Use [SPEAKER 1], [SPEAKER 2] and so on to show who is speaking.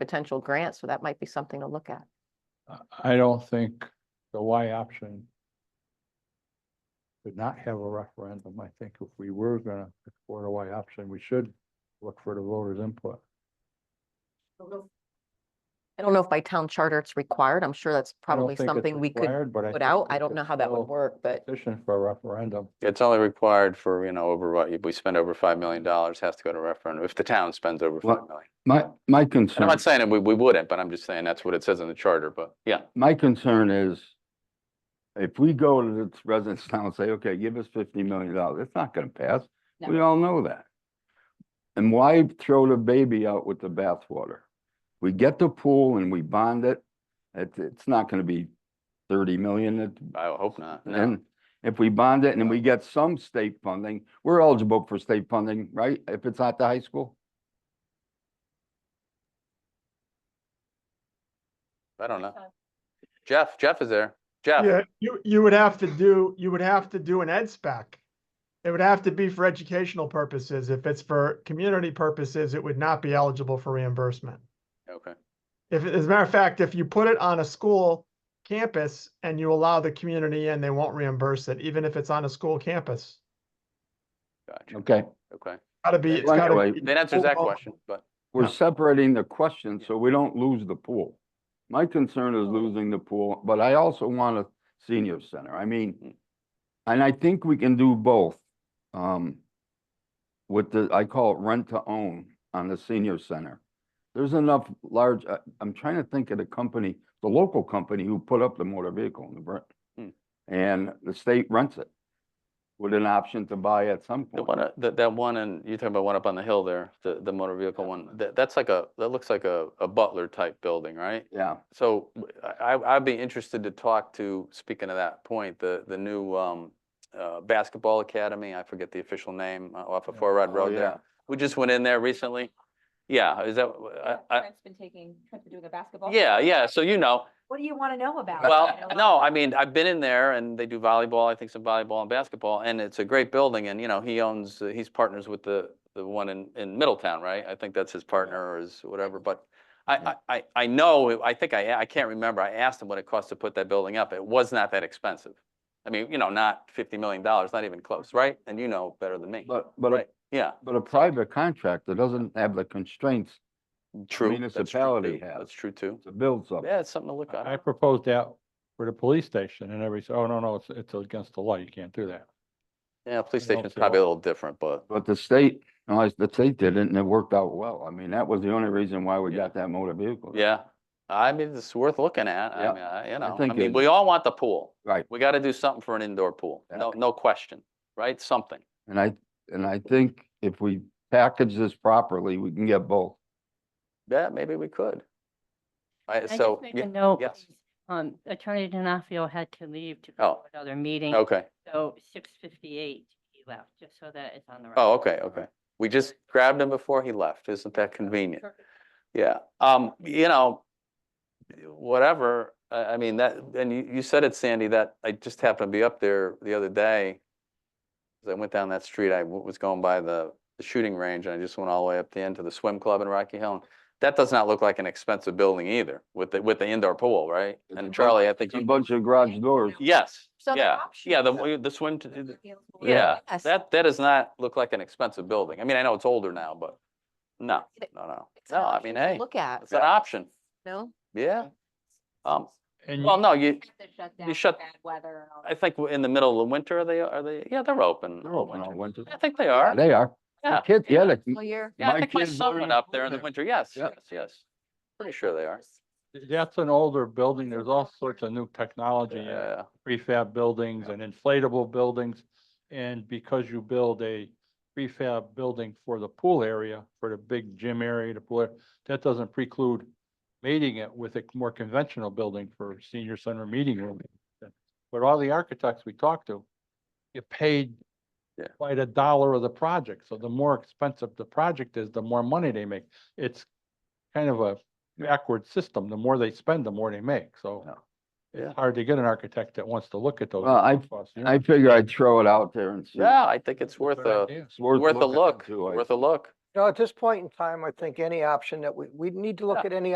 [SPEAKER 1] potential grants, so that might be something to look at.
[SPEAKER 2] I- I don't think the Y option should not have a referendum. I think if we were gonna explore the Y option, we should look for the voters' input.
[SPEAKER 1] I don't know if by town charter it's required. I'm sure that's
[SPEAKER 2] I don't
[SPEAKER 1] probably
[SPEAKER 2] think it's
[SPEAKER 1] something we could
[SPEAKER 2] required, but I
[SPEAKER 1] put
[SPEAKER 2] think
[SPEAKER 1] out.
[SPEAKER 2] we
[SPEAKER 1] I don't
[SPEAKER 2] could
[SPEAKER 1] know how that
[SPEAKER 2] still
[SPEAKER 1] would work, but
[SPEAKER 2] Petition for a referendum.
[SPEAKER 3] It's only required for, you know, over what, we spend over five million dollars, has to go to referendum, if the town spends over
[SPEAKER 4] Well,
[SPEAKER 3] five million.
[SPEAKER 4] My, my
[SPEAKER 3] And I'm
[SPEAKER 4] concern,
[SPEAKER 3] not saying that we, we wouldn't, but I'm just saying that's what it says in the charter, but yeah.
[SPEAKER 4] my concern is if we go to the residents now and say, okay, give us fifty million dollars, it's not gonna pass.
[SPEAKER 5] No.
[SPEAKER 4] We all know that. And why throw the baby out with the bathwater? We get the pool and we bond it. It's, it's not gonna be thirty million. It-
[SPEAKER 3] I hope not, no.
[SPEAKER 4] And if we bond it and
[SPEAKER 3] No.
[SPEAKER 4] we get some state funding, we're eligible for state funding, right? If it's at the high school?
[SPEAKER 3] I don't know. Jeff, Jeff is there. Jeff,
[SPEAKER 6] Yeah, you, you would have to do, you would have to do an ed spec. It would have to be for educational purposes. If it's for community purposes, it would not be eligible for reimbursement.
[SPEAKER 3] okay.
[SPEAKER 6] If, as a matter of fact, if you put it on a school campus and you allow the community in, they won't reimburse it, even if it's on a school campus.
[SPEAKER 3] Gotcha,
[SPEAKER 4] Okay.
[SPEAKER 3] okay.
[SPEAKER 6] Gotta be, it's
[SPEAKER 4] Well,
[SPEAKER 6] gotta
[SPEAKER 4] anyway,
[SPEAKER 6] be-
[SPEAKER 3] That answers that
[SPEAKER 6] Oh, oh.
[SPEAKER 3] question, but
[SPEAKER 4] We're
[SPEAKER 6] Yeah.
[SPEAKER 4] separating the question so we don't lose the pool. My concern
[SPEAKER 3] Oh.
[SPEAKER 4] is losing the pool, but I also want a senior center. I
[SPEAKER 3] Hmm.
[SPEAKER 4] mean, and I think we can do both. Um, with the, I call it rent to own on the senior center. There's enough large, I, I'm trying to think of the company, the local company who put up the motor vehicle in the
[SPEAKER 3] Hmm.
[SPEAKER 4] Brit. And the state rents it with an option to buy at some
[SPEAKER 3] the
[SPEAKER 4] point.
[SPEAKER 3] one, uh, that, that one, and you're talking about one up on the hill there, the, the motor vehicle one, that, that's like a, that looks like a, a Butler type building, right?
[SPEAKER 4] Yeah,
[SPEAKER 3] So w- I, I- I'd be interested to talk to, speaking of that point, the, the new um, uh, basketball academy, I forget the official name, uh, off of Four Rod
[SPEAKER 4] Oh,
[SPEAKER 3] Road
[SPEAKER 4] yeah.
[SPEAKER 3] there. We just went in there recently. Yeah, is that, w- I- I-
[SPEAKER 5] Trent's been taking, Trent's been doing a basketball.
[SPEAKER 3] yeah, yeah, so you know,
[SPEAKER 5] What do you want to know about?
[SPEAKER 3] well,
[SPEAKER 5] You know,
[SPEAKER 3] no, I mean, I've been in there and they do volleyball, I think some volleyball and basketball, and it's a great building and, you know, he owns, uh, he's partners with the, the one in, in Middletown, right? I think that's his partner or his whatever, but I, I, I, I know, it- I think I, a- I can't remember, I asked him what it cost to put that building up, it was not that expensive. I mean, you know, not fifty million dollars, not even close, right? And you know better than me,
[SPEAKER 4] but, but a
[SPEAKER 3] right? Yeah,
[SPEAKER 4] But a private contractor doesn't have the constraints
[SPEAKER 3] true. that's true,
[SPEAKER 4] municipality
[SPEAKER 3] too,
[SPEAKER 4] has.
[SPEAKER 3] That's true too.
[SPEAKER 4] to build something.
[SPEAKER 3] Yeah, it's something to look
[SPEAKER 2] I I
[SPEAKER 3] at.
[SPEAKER 2] proposed that for the police station and every, oh, no, no, it's, it's against the law. You can't do that.
[SPEAKER 3] Yeah, police
[SPEAKER 2] I don't
[SPEAKER 3] station's
[SPEAKER 2] see
[SPEAKER 3] probably
[SPEAKER 2] why.
[SPEAKER 3] a little different, but
[SPEAKER 4] But the state, no, it's- the state did it and it worked out well. I mean, that was the only reason why we
[SPEAKER 3] Yeah.
[SPEAKER 4] got that motor vehicle.
[SPEAKER 3] Yeah, I mean, it's worth looking at. I
[SPEAKER 4] Yeah,
[SPEAKER 3] mean, I- you know, I
[SPEAKER 4] think
[SPEAKER 3] mean,
[SPEAKER 4] it-
[SPEAKER 3] we all want the pool.
[SPEAKER 4] Right.
[SPEAKER 3] We gotta do something for an indoor pool.
[SPEAKER 4] Yeah.
[SPEAKER 3] No, no question, right? Something.
[SPEAKER 4] And I, and I think if we package this properly, we can get both.
[SPEAKER 3] Yeah, maybe we could. I,
[SPEAKER 7] I
[SPEAKER 3] so,
[SPEAKER 7] just make
[SPEAKER 3] yeah,
[SPEAKER 7] a note.
[SPEAKER 3] yes.
[SPEAKER 7] Um, Attorney Denafrio had to leave to
[SPEAKER 3] Oh.
[SPEAKER 7] go to another meeting.
[SPEAKER 3] okay.
[SPEAKER 7] So six fifty-eight, he left, just so that it's on the.
[SPEAKER 3] Oh,
[SPEAKER 7] record.
[SPEAKER 3] okay, okay. We just grabbed him before he left. Isn't that convenient?
[SPEAKER 7] Perfect.
[SPEAKER 3] Yeah, um, you know, whatever, I, I mean, that, and you, you said it, Sandy, that I just happened to be up there the other day. As I went down that street, I w- was going by the, the shooting range, and I just went all the way up the end to the swim club in Rocky Hill. and That does not look like an expensive building either, with the, with the indoor pool, right?
[SPEAKER 4] It's a
[SPEAKER 3] And
[SPEAKER 4] bunch-
[SPEAKER 3] Charlie, I think,
[SPEAKER 4] It's a
[SPEAKER 3] you-
[SPEAKER 4] bunch of garage doors.
[SPEAKER 3] yes,
[SPEAKER 1] So the
[SPEAKER 3] yeah,
[SPEAKER 1] option
[SPEAKER 3] yeah, the,
[SPEAKER 1] is-
[SPEAKER 3] w- the swim, t- the-
[SPEAKER 5] Scalable.
[SPEAKER 3] yeah,
[SPEAKER 1] Yes.
[SPEAKER 3] that, that does not look like an expensive building. I mean, I know it's older now, but no,
[SPEAKER 1] It-
[SPEAKER 3] no, no.
[SPEAKER 1] It's an
[SPEAKER 3] No, I
[SPEAKER 1] option
[SPEAKER 3] mean,
[SPEAKER 1] to
[SPEAKER 3] hey,
[SPEAKER 1] Look at,
[SPEAKER 3] it's an option,
[SPEAKER 1] no?
[SPEAKER 3] yeah. Um,
[SPEAKER 2] And
[SPEAKER 3] well, no, you,
[SPEAKER 5] Have to shut down for
[SPEAKER 3] shut-
[SPEAKER 5] bad weather and all
[SPEAKER 3] I
[SPEAKER 5] that.
[SPEAKER 3] think in the middle of the winter, are they, are they, yeah, they're open.
[SPEAKER 4] They're open all winter.
[SPEAKER 3] I think they are.
[SPEAKER 4] They are. The
[SPEAKER 3] Yeah.
[SPEAKER 4] Kids, yeah, the-
[SPEAKER 1] Well, you're.
[SPEAKER 3] Yeah, I
[SPEAKER 4] my
[SPEAKER 3] think my
[SPEAKER 4] kids
[SPEAKER 3] son
[SPEAKER 4] learn
[SPEAKER 3] went
[SPEAKER 4] to
[SPEAKER 3] up
[SPEAKER 4] play
[SPEAKER 3] there in the
[SPEAKER 4] there.
[SPEAKER 3] winter. Yes, yes,
[SPEAKER 4] Yep.
[SPEAKER 3] yes. Pretty sure they are.
[SPEAKER 2] that's an older building. There's all sorts of new technology. in it.
[SPEAKER 3] Yeah,
[SPEAKER 2] prefab buildings and inflatable buildings. And because you build a prefab building for the pool area, for the big gym area, the pool, area, that doesn't preclude mating it with a more conventional building for senior center meeting room. But all the architects we talked to, get paid
[SPEAKER 3] Yeah.
[SPEAKER 2] by the dollar of the project. So the more expensive the project is, the more money they make. It's kind of a backward system. The more they spend, the more they make. So
[SPEAKER 3] Yeah. Yeah.
[SPEAKER 2] it's hard to get an architect that wants to look at those.
[SPEAKER 4] Well, I-
[SPEAKER 2] costs, you know?
[SPEAKER 4] I figure I'd throw it out there and see.
[SPEAKER 3] yeah, I think it's
[SPEAKER 2] That's a
[SPEAKER 3] worth
[SPEAKER 2] good
[SPEAKER 3] a,
[SPEAKER 2] idea.
[SPEAKER 4] It's worth
[SPEAKER 3] worth a
[SPEAKER 4] looking
[SPEAKER 3] look,
[SPEAKER 4] into, I
[SPEAKER 3] worth a look.
[SPEAKER 8] No, at this point in time, I think any option that we, we need to look at any